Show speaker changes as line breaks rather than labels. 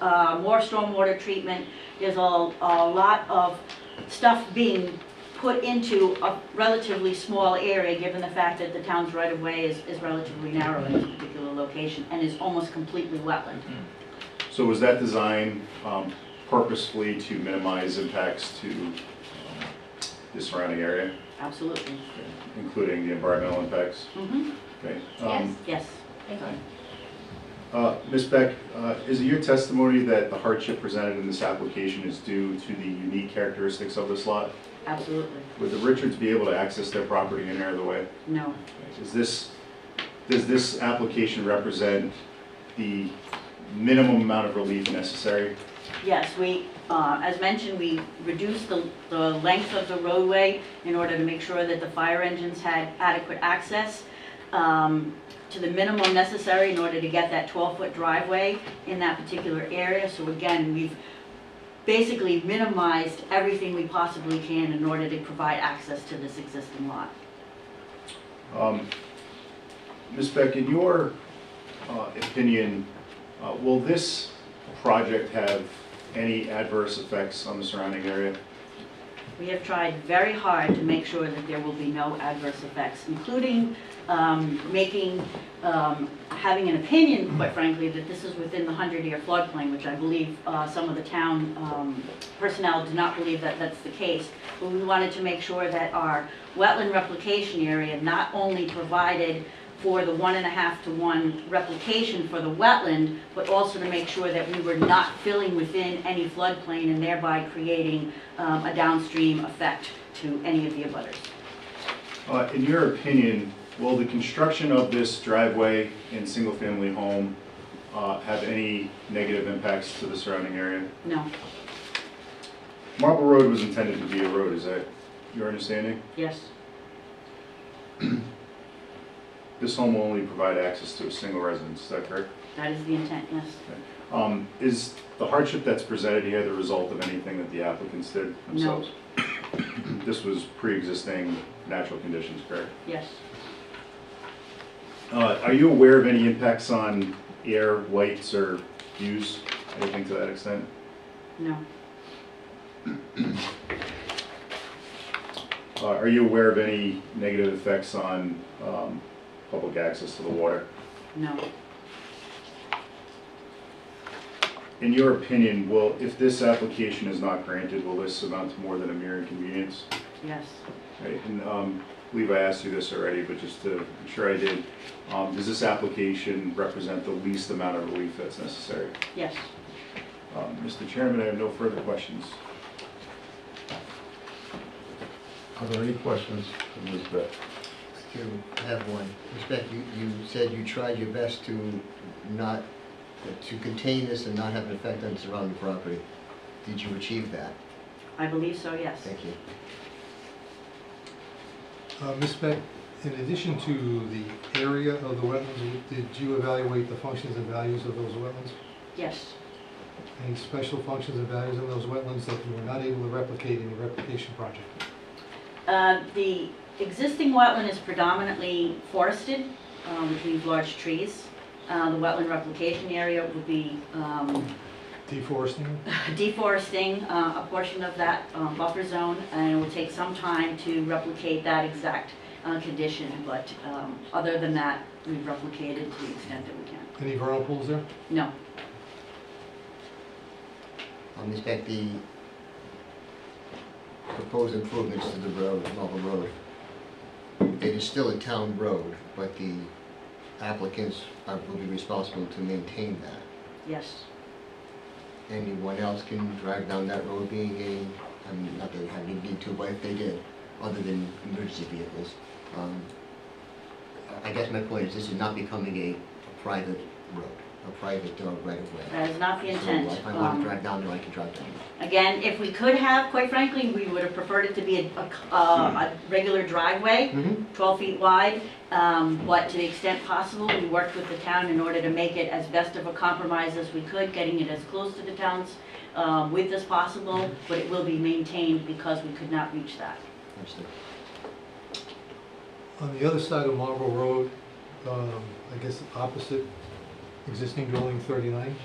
uh, more stormwater treatment. There's a, a lot of stuff being put into a relatively small area, given the fact that the town's right-of-way is, is relatively narrow in this particular location and is almost completely wetland.
So was that design um, purposefully to minimize impacts to um, the surrounding area,
Absolutely.
including the environmental impacts?
hmm
Okay. Um,
yes.
uh, Ms. Beck, uh, is it your testimony that the hardship presented in this application is due to the unique characteristics of this lot?
Absolutely.
Would the Richards be able to access their property any other way?
No,
Is this, does this application represent the minimum amount of relief necessary?
yes, we, uh, as mentioned, we reduced the, the length of the roadway in order to make sure that the fire engines had adequate access um, to the minimum necessary in order to get that 12-foot driveway in that particular area. So again, we've basically minimized everything we possibly can in order to provide access to this existing lot.
Um, Ms. Beck, in your uh, opinion, uh, will this project have any adverse effects on the surrounding area?
We have tried very hard to make sure that there will be no adverse effects, including um, making, um, having an opinion, quite frankly, that this is within the 100-year floodplain, which I believe uh, some of the town um, personnel do not believe that that's the case. But we wanted to make sure that our wetland replication area not only provided for the one and a half to one replication for the wetland, but also to make sure that we were not filling within any floodplain and thereby creating um, a downstream effect to any of the abutters.
Uh, In your opinion, will the construction of this driveway and single-family home uh, have any negative impacts to the surrounding area?
No,
Marble Road was intended to be a road, is that your understanding?
yes,
This home will only provide access to a single residence, is that correct?
that is the intent, yes.
Um, Is the hardship that's presented here the result of anything that the applicants did themselves? This was pre-existing natural conditions, correct?
Yes,
Uh, Are you aware of any impacts on air, lights, or views, anything to that extent?
no,
Uh, Are you aware of any negative effects on um, public access to the water?
no,
In your opinion, will, if this application is not granted, will this amount to more than a mere inconvenience?
yes,
Right, and um, I believe I asked you this already, but just to, I'm sure I did. Um, Does this application represent the least amount of relief that's necessary?
yes.
Um, Mr. Chairman, I have no further questions.
Are there any questions from Ms. Beck?
Chairman, I have one. Respect, you, you said you tried your best to not, to contain this and not have an effect on surrounding property. Did you achieve that?
I believe so, yes.
Thank you.
Uh, Ms. Beck, in addition to the area of the wetlands, did you evaluate the functions and values of those wetlands?
Yes,
Any special functions and values in those wetlands that you were not able to replicate in the replication project?
Uh, The existing wetland is predominantly forested, um, which means large trees. Uh, The wetland replication area will be um,
Deforesting?
deforesting uh, a portion of that um, buffer zone, and it will take some time to replicate that exact uh, condition, but um, other than that, we've replicated to the extent that we can.
Any vernal pools there?
No,
Um, respect the proposed improvements to the road, Marble Road. It is still a town road, but the applicants are, will be responsible to maintain that.
yes,
Anyone else can drive down that road being a, I mean, not that they have any need to, but if they did, other than emergency vehicles. um, I I guess my point is this is not becoming a a private road, a private uh, right of way.
that is not the intent.
So if I want
Um,
to drive down there, I can drive down there.
Again, if we could have, quite frankly, we would have preferred it to be a- a c- uh, a regular driveway,
Mhm.
12 feet wide, um, but to the extent possible, we worked with the town in order to make it as best of a compromise as we could, getting it as close to the town's um, width as possible, but it will be maintained because we could not reach that.
Understood.
On the other side of Marble Road, um, I guess opposite existing dwelling 39?